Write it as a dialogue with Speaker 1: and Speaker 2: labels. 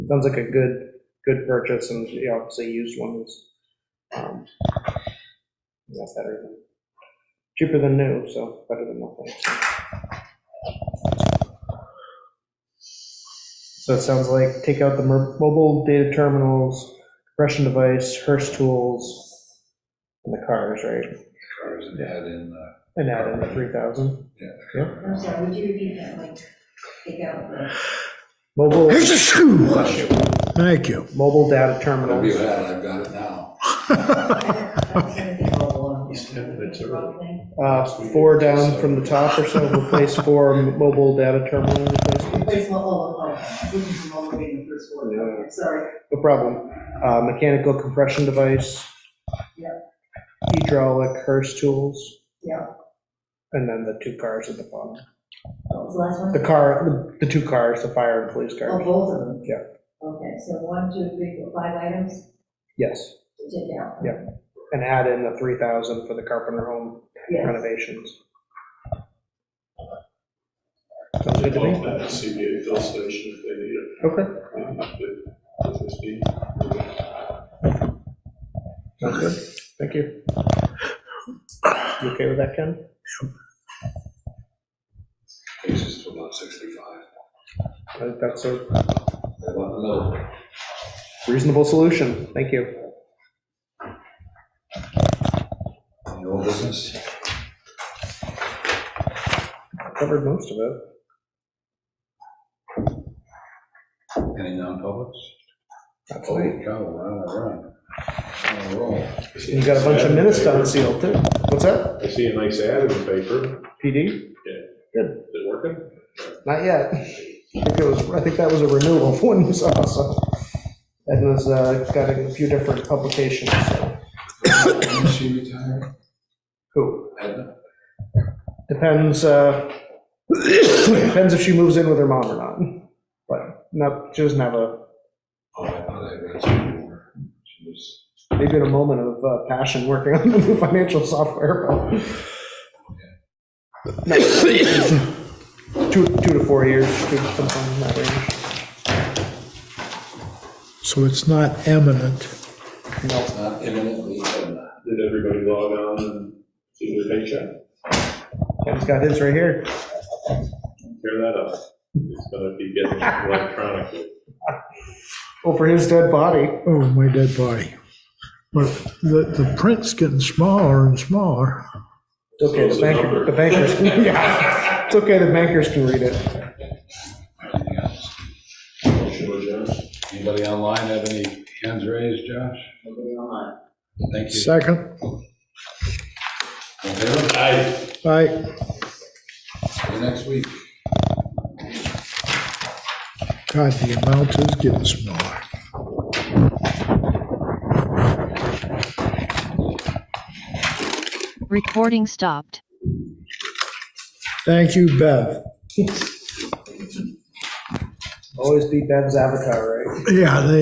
Speaker 1: sounds like a good, good purchase, and, you know, obviously used one is, um, that's better than, cheaper than new, so better than nothing. so. So it sounds like take out the mer- mobile data terminals, compression device, Hearst tools, and the cars, right?
Speaker 2: cars and add in, uh,
Speaker 1: And add in the 3,000.
Speaker 3: I'm sorry, would you repeat that, like, take out the,
Speaker 1: Mobile,
Speaker 4: Here's a shoe. Thank you.
Speaker 1: mobile data
Speaker 2: whatever you
Speaker 1: terminals.
Speaker 2: had, I've got it now.
Speaker 3: I was gonna think of all along.
Speaker 2: Yeah, that's all right.
Speaker 3: Replacement
Speaker 1: Uh, Four down from the top or so, replace four m- mobile data terminal replacements.
Speaker 3: all along, looking from all the way in the first one, okay, sorry.
Speaker 1: No problem. Uh, Mechanical compression device.
Speaker 3: Yeah.
Speaker 1: Hydraulic Hearst tools.
Speaker 3: Yeah.
Speaker 1: And then the two cars at the bottom.
Speaker 3: What was the last
Speaker 1: The
Speaker 3: one?
Speaker 1: car, the two cars, the fire and police
Speaker 3: Oh,
Speaker 1: cars.
Speaker 3: both of them?
Speaker 1: Yeah.
Speaker 3: Okay, so one, two, three, four, five items
Speaker 1: Yes,
Speaker 3: to take out?
Speaker 1: Yeah. and add in the 3,000 for the Carpenter home
Speaker 3: Yes,
Speaker 1: renovations. Sounds good to me.
Speaker 5: Well, at the CBA fill station if they need it.
Speaker 1: Okay.
Speaker 5: If- if it's needed.
Speaker 1: Sounds good. Thank you. You okay with that, Ken?
Speaker 2: Takes us to about sixty-five.
Speaker 1: I think that's a
Speaker 2: I want another.
Speaker 1: reasonable solution. Thank you.
Speaker 2: Any old business?
Speaker 1: Covered most of it.
Speaker 2: Any non-publics? Oh,
Speaker 1: That's
Speaker 5: Oh,
Speaker 1: right.
Speaker 2: Holy cow, we're on a run. On a roll.
Speaker 1: You got a bunch of minutes done sealed too. What's that?
Speaker 5: I see a nice ad in the paper.
Speaker 1: PD?
Speaker 5: Is it working?
Speaker 1: Not yet. I think it was, I think that was a renewal of one you saw, so. Edna's uh, got a few different publications, so.
Speaker 2: When she retired?
Speaker 1: Who?
Speaker 2: Edna?
Speaker 1: Depends, uh, depends if she moves in with her mom or not. But not, she doesn't have a,
Speaker 2: Oh, I thought I read some more. She was,
Speaker 1: maybe in a moment of uh, passion working on the new financial software. but- No, Two, two to four years, two- sometime in that range.
Speaker 4: So it's not eminent.
Speaker 1: No,
Speaker 2: not imminently Edna.
Speaker 5: Did everybody log on and see their paycheck?
Speaker 1: Ken's got his right here.
Speaker 5: Tear that up. It's gonna be getting electronically.
Speaker 1: Over his dead body.
Speaker 4: Oh, my dead body. But the, the print's getting smaller and smaller.
Speaker 1: It's okay,
Speaker 5: So is
Speaker 1: the
Speaker 5: the
Speaker 1: banker,
Speaker 5: number.
Speaker 1: the bankers, yeah, it's okay, the bankers can read it.
Speaker 2: Anything else?
Speaker 5: Motion to adjourn.
Speaker 2: Anybody online have any hands raised, Josh?
Speaker 3: Nobody online.
Speaker 2: Thank you.
Speaker 4: Second,
Speaker 2: All in favor?
Speaker 5: Aye.
Speaker 4: I.
Speaker 2: See you next week.
Speaker 4: God, the amount is getting smaller.
Speaker 6: Recording stopped.
Speaker 4: Thank you, Bev.
Speaker 1: Always be Ben's avatar, right?
Speaker 4: Yeah, they